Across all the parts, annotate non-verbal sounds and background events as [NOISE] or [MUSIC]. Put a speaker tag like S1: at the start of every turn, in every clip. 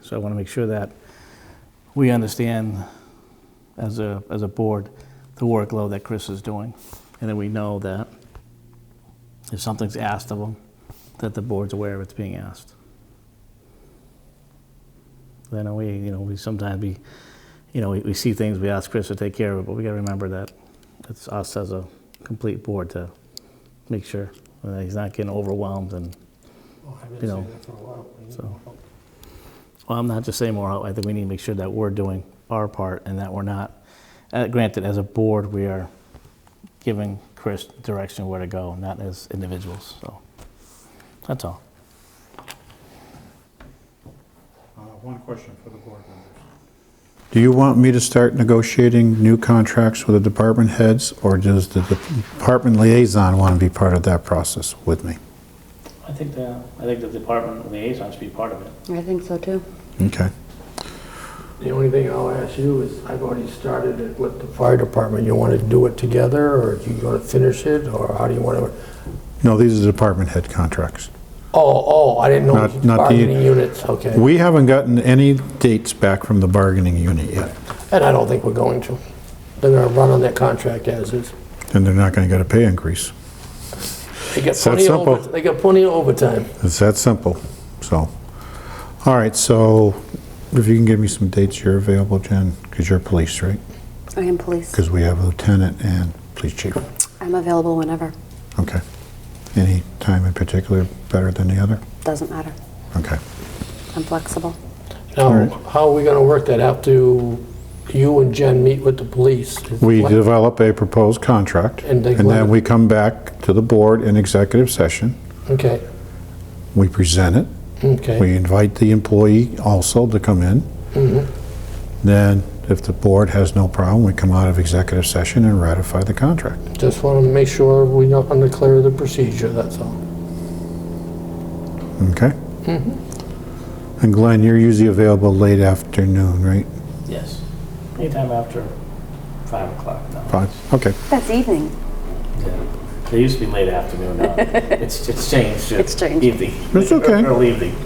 S1: So I want to make sure that we understand as a, as a board, the workload that Chris is doing. And then we know that if something's asked of him, that the board's aware of it's being asked. Then we, you know, we sometimes be, you know, we, we see things, we ask Chris to take care of it, but we gotta remember that it's us as a complete board to make sure that he's not getting overwhelmed and,
S2: Oh, I've
S1: You
S2: been
S1: know,
S2: saying that for a while.
S1: so. well, I'm not just saying more, help. I think we need to make sure that we're doing our part and that we're not, uh, granted, as a board, we are giving Chris direction where to go, not as individuals, so. That's all.
S3: Uh, One question for the board members.
S4: Do you want me to start negotiating new contracts with the department heads, or does the department liaison want to be part of that process with me?
S1: I think the, I think the department liaison should be part of it.
S5: I think so too.
S4: Okay.
S2: The only thing I'll ask you is, I've already started it with the fire department. You want to do it together, or do you want to finish it, or how do you want to?
S4: No, these are department head contracts.
S2: Oh, oh, I didn't know it
S4: Not-
S2: was
S4: not the- e-
S2: bargaining units, okay.
S4: We haven't gotten any dates back from the bargaining unit yet,
S2: And I don't think we're going to. They're going to run on that contract as is.
S4: and they're not going to get a pay increase.
S2: They got
S4: So
S2: plenty of
S4: simple.
S2: over, they got plenty of overtime.
S4: It's that simple, so. All right, so if you can give me some dates you're available, Jen, because you're police, right?
S5: I am police.
S4: Because we have a lieutenant and police chief.
S5: I'm available whenever.
S4: Okay. Any time in particular better than the other?
S5: Doesn't matter.
S4: Okay.
S5: I'm flexible.
S2: Now,
S4: right.
S2: how are we going to work that out? Do you and Jen meet with the police?
S4: We develop a proposed contract,
S2: And
S4: and
S2: they-
S4: then we come back to the board in executive session.
S2: Okay,
S4: We present it. We
S2: okay.
S4: invite the employee also to come in.
S2: Mm-hmm.
S4: Then, if the board has no problem, we come out of executive session and ratify the contract.
S2: Just want to make sure we don't unclear the procedure, that's all.
S4: Okay?
S2: Mm-hmm.
S4: And Glenn, you're usually available late afternoon, right?
S1: Yes. Anytime after five o'clock now.
S4: Five? Okay.
S5: That's evening.
S1: It used to be late afternoon now. It's, it's changed. to
S5: It's changed.
S1: Evening.
S4: It's okay.
S1: Early evening.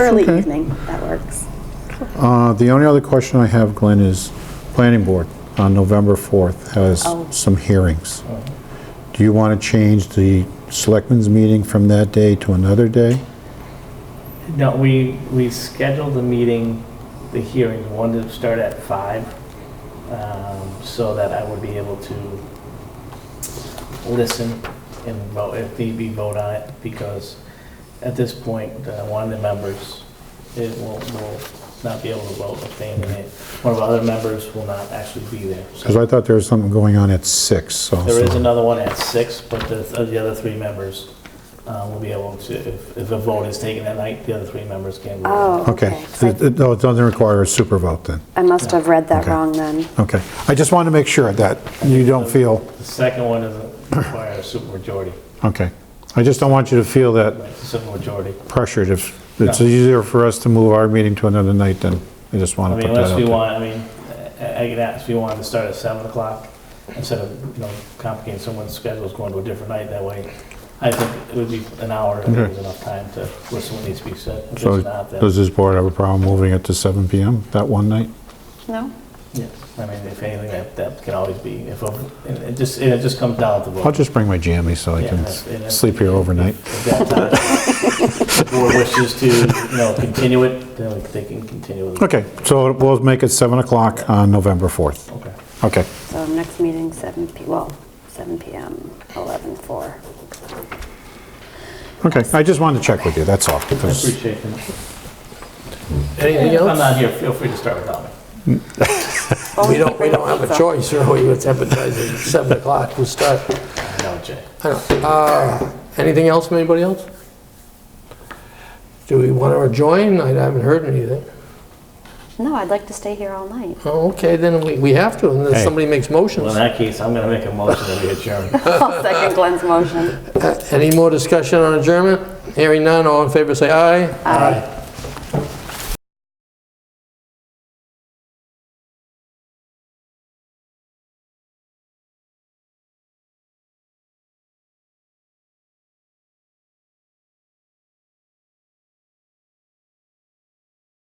S5: Early
S4: okay.
S5: evening. That works.
S4: Uh, The only other question I have, Glenn, is Planning Board on November 4th has
S5: Oh.
S4: some hearings. Do you want to change the Selectmen's meeting from that day to another day?
S1: No, we, we scheduled the meeting, the hearing, one to start at five, um, so that I would be able to listen and vote, if need be, vote on it, because at this point, uh, one of the members, it will, will not be able to vote, abstain, and it- one of the other members will not actually be there. So
S4: Because I thought there was something going on at six. so.
S1: There is another one at six, but the, uh, the other three members uh, will be able to, if, if a vote is taken that night, the other three members can vote.
S5: Oh,
S4: Okay.
S5: okay. 'Cause
S4: It- it- No, it doesn't require a super vote then.
S5: I I must have read that
S4: Okay.
S5: wrong then.
S4: Okay. I just want to make sure that you don't feel,
S1: The second one doesn't require a supermajority,
S4: okay. I just don't want you to feel that
S1: right, it's a supermajority.
S4: pressured if, it's
S1: No.
S4: easier for us to move our meeting to another night than, I just
S1: I
S4: want to
S1: mean,
S4: put that
S1: unless
S4: out
S1: we
S4: there.
S1: want, I mean, I I could ask if we wanted to start at seven o'clock instead of, you know, complicating someone's schedules going to a different night that way. I think it would be an hour, I think
S4: Okay.
S1: is enough time to listen what needs to be said. If
S4: So
S1: it's not, then,
S4: does this board have a problem moving it to seven PM that one night?
S5: No?
S1: yeah, I mean, if anything, that, that can always be, if, a- and it just, and it just comes down to the vote.
S4: I'll just bring my jammies so I
S1: Yeah,
S4: can
S1: that's- and that's-
S4: sleep here overnight.
S1: [LAUGHS] If that time, the board wishes to, you know, continue it, then they can continue it.
S4: Okay, so we'll make it 7 o'clock on November 4th.
S1: Okay.
S4: Okay,
S5: So next meeting, 7 p, well, 7 PM, 11, 4.
S4: okay. I just wanted to check with you, that's all.
S1: I
S4: because-
S1: appreciate it.
S2: Anything
S1: If I'm not
S2: else?
S1: here, feel free to start without me.
S5: Well,
S2: We
S5: can
S2: don't, we
S5: bring
S2: don't have a
S5: pizza.
S2: choice, really, it's advertising at 7 o'clock, we start.
S1: No, Jay.
S2: I don't- uh, Anything else, from anybody else? Do we want to adjourn? I haven't heard anything.
S5: No, I'd like to stay here all night. [LAUGHS]
S2: Oh, okay, then we, we have to, unless
S4: Hey.
S2: somebody makes
S1: Well, in
S2: motions.
S1: that case, I'm going to make a motion that we adjourn.
S5: I'll second Glenn's motion.
S2: Uh, Any more discussion on adjournment? Hearing none, all in favor, say aye.
S5: Aye.